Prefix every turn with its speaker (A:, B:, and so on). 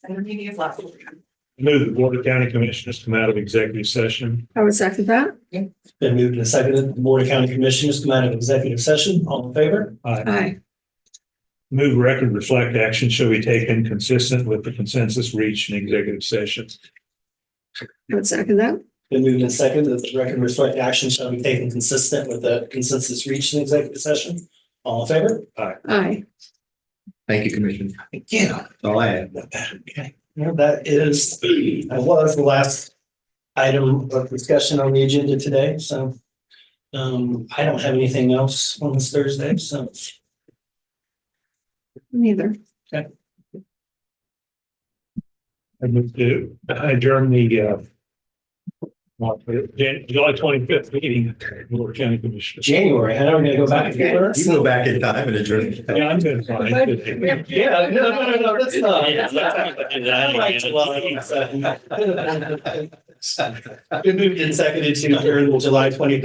A: And the meeting is last.
B: Move the Board of County Commissioners come out of executive session.
C: I would second that.
D: Been moved and seconded. The Board of County Commissioners come out of executive session. All in favor?
B: Aye.
C: Aye.
B: Move record reflect action shall be taken consistent with the consensus reached in executive session.
C: I would second that.
D: Been moved and seconded that the record reflect action shall be taken consistent with the consensus reached in executive session. All in favor?
C: Aye.
E: Thank you, Commissioner.
D: Yeah.
E: That's all I have.
D: Okay. Well, that is, that was the last item of discussion on the agenda today, so um, I don't have anything else on this Thursday, so
C: Neither.
B: I move to adjourn the uh, Jan- July twenty-fifth meeting of the Board of County Commissioners.
D: January, I know we're gonna go back.
E: You can go back in time and adjourn.
B: Yeah, I'm doing fine.
D: Yeah, no, no, no, no, that's not.
B: Yeah, that's not-
D: I like July. Been moved and seconded to adjourn the July twenty